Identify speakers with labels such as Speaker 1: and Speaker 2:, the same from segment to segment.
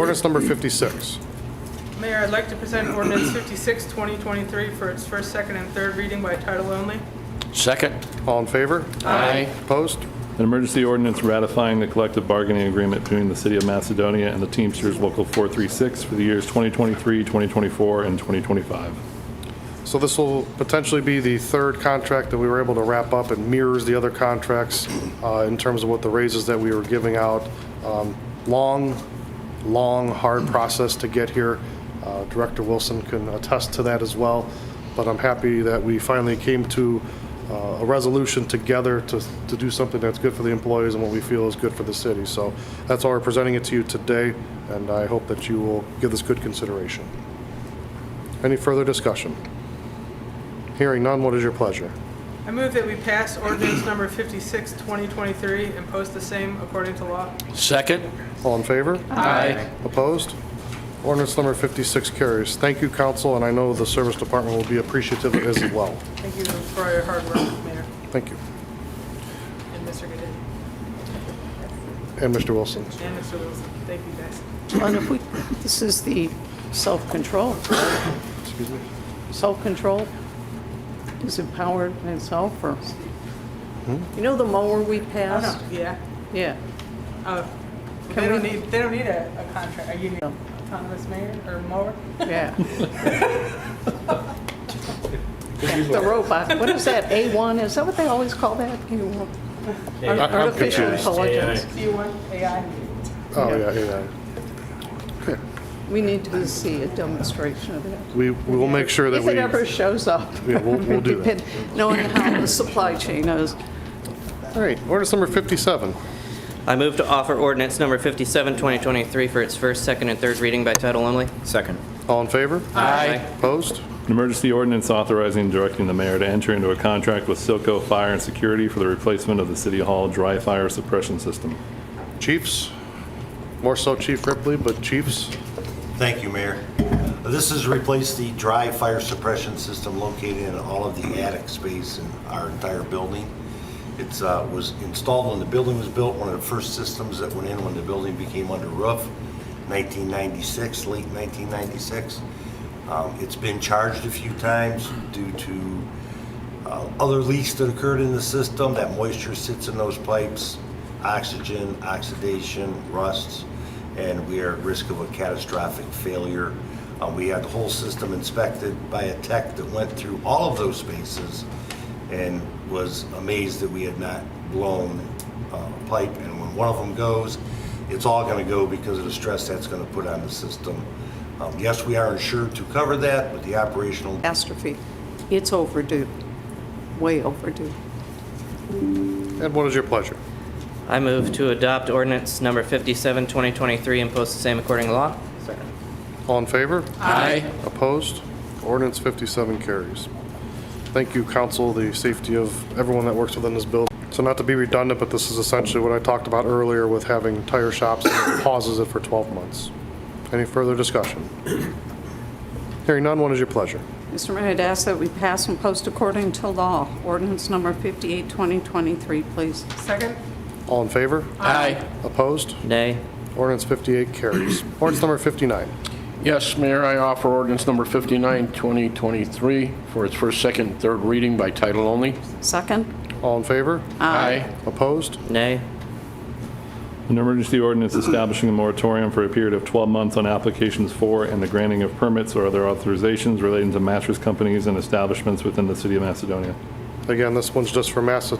Speaker 1: Ordinance number 56.
Speaker 2: Mayor, I'd like to present ordinance 56, 2023 for its first, second, and third reading by title only.
Speaker 3: Second.
Speaker 1: All in favor?
Speaker 3: Aye.
Speaker 1: Opposed?
Speaker 4: An emergency ordinance ratifying the collective bargaining agreement between the City of Macedonia and the Teamsters Local 436 for the years 2023, 2024, and 2025.
Speaker 1: So this will potentially be the third contract that we were able to wrap up and mirrors the other contracts uh, in terms of what the raises that we were giving out. Um, Long, long, hard process to get here. Uh, Director Wilson can attest to that as well. But I'm happy that we finally came to uh, a resolution together to, to do something that's good for the employees and what we feel is good for the city. So that's why we're presenting it to you today, and I hope that you will give this good consideration. Any further discussion? Hearing none, what is your pleasure?
Speaker 2: I move that we pass ordinance number 56, 2023 and post the same according to law.
Speaker 3: Second.
Speaker 1: All in favor?
Speaker 3: Aye.
Speaker 1: Opposed? Ordinance number 56 carries. Thank you, council, and I know the service department will be appreciative as well.
Speaker 2: Thank you for your hard work, Mayor,
Speaker 1: Thank you.
Speaker 2: and Mr. Gooden,
Speaker 1: And Mr. Wilson.
Speaker 2: and Mr. Wilson. Thank you, guys.
Speaker 5: And if we, this is the self-control.
Speaker 1: Excuse me?
Speaker 5: Self-control is empowered in itself, or?
Speaker 1: Hmm?
Speaker 5: You know the mower we passed?
Speaker 2: Yeah.
Speaker 5: Yeah.
Speaker 2: Oh, They
Speaker 5: Can
Speaker 2: don't
Speaker 5: we-
Speaker 2: need, they don't need a a contract. Are you need autonomous mayor or mower?
Speaker 5: Yeah. The robot, what is that, A1, is that what they always call that? A1? Artificial
Speaker 1: confused.
Speaker 5: intelligence.
Speaker 2: Do you want AI?
Speaker 1: Oh, yeah, yeah.
Speaker 5: We need to see a demonstration of that.
Speaker 1: We we will make sure that
Speaker 5: If
Speaker 1: we...
Speaker 5: it ever shows up.
Speaker 1: Yeah, we'll- we'll do that.
Speaker 5: Knowing how the supply chain is.
Speaker 1: All right, ordinance number 57.
Speaker 6: I move to offer ordinance number 57, 2023 for its first, second, and third reading by title only.
Speaker 3: Second.
Speaker 1: All in favor?
Speaker 3: Aye.
Speaker 1: Opposed?
Speaker 4: An emergency ordinance authorizing and directing the mayor to enter into a contract with Silco Fire and Security for the replacement of the City Hall dry fire suppression system.
Speaker 1: Chiefs? More so Chief Ripley, but chiefs?
Speaker 7: Thank you, Mayor. This has replaced the dry fire suppression system located in all of the attic space in our entire building. It was installed when the building was built, one of the first systems that went in when the building became under roof, 1996, late 1996. Um, It's been charged a few times due to uh, other leaks that occurred in the system, that moisture sits in those pipes, oxygen, oxidation, rusts, and we are at risk of a catastrophic failure. Uh, We had the whole system inspected by a tech that went through all of those spaces and was amazed that we had not blown uh, pipe. And when one of them goes, it's all going to go because of the stress that's going to put on the system. Um, Yes, we are insured to cover that, but the operational
Speaker 5: catastrophe. It's overdue, way overdue.
Speaker 1: And what is your pleasure?
Speaker 6: I move to adopt ordinance number 57, 2023 and post the same according to law.
Speaker 1: All in favor?
Speaker 3: Aye.
Speaker 1: Opposed? Ordinance 57 carries. Thank you, council, the safety of everyone that works within this building. So not to be redundant, but this is essentially what I talked about earlier with having tire shops that pauses it for 12 months. Any further discussion? Hearing none, what is your pleasure?
Speaker 5: Mr. Mayor, I'd ask that we pass and post according to law, ordinance number 58, 2023, please.
Speaker 2: Second?
Speaker 1: All in favor?
Speaker 3: Aye.
Speaker 1: Opposed?
Speaker 6: Nay.
Speaker 1: Ordinance 58 carries. Ordinance number 59.
Speaker 8: Yes, Mayor, I offer ordinance number 59, 2023, for its first, second, and third reading by title only.
Speaker 5: Second?
Speaker 1: All in favor?
Speaker 8: Aye.
Speaker 1: Opposed?
Speaker 6: Nay.
Speaker 4: An emergency ordinance establishing a moratorium for a period of 12 months on applications for and the granting of permits or other authorizations relating to mattress companies and establishments within the City of Macedonia.
Speaker 1: Again, this one's just for massa-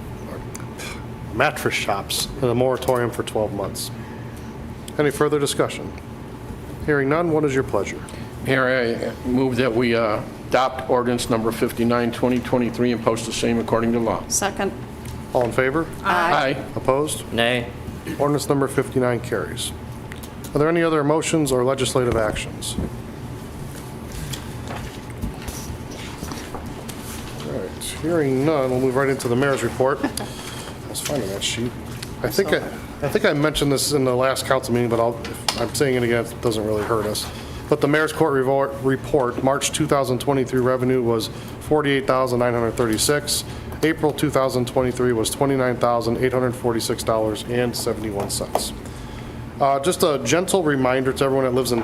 Speaker 1: mattress shops, and a moratorium for 12 months. Any further discussion? Hearing none, what is your pleasure?
Speaker 8: Mayor, I move that we uh, adopt ordinance number 59, 2023, and post the same according to law.
Speaker 5: Second?
Speaker 1: All in favor?
Speaker 8: Aye.
Speaker 1: Opposed?
Speaker 6: Nay.
Speaker 1: Ordinance number 59 carries. Are there any other motions or legislative actions? All right, hearing none, we'll move right into the mayor's report. I was finding that sheet. I think, I I think I mentioned this in the last council meeting, but I'll, if I'm saying it again, it doesn't really hurt us. But the mayor's court revor- report, March 2023 revenue was 48,936. April 2023 was $29,846.71. Uh, Just a gentle reminder to everyone that lives in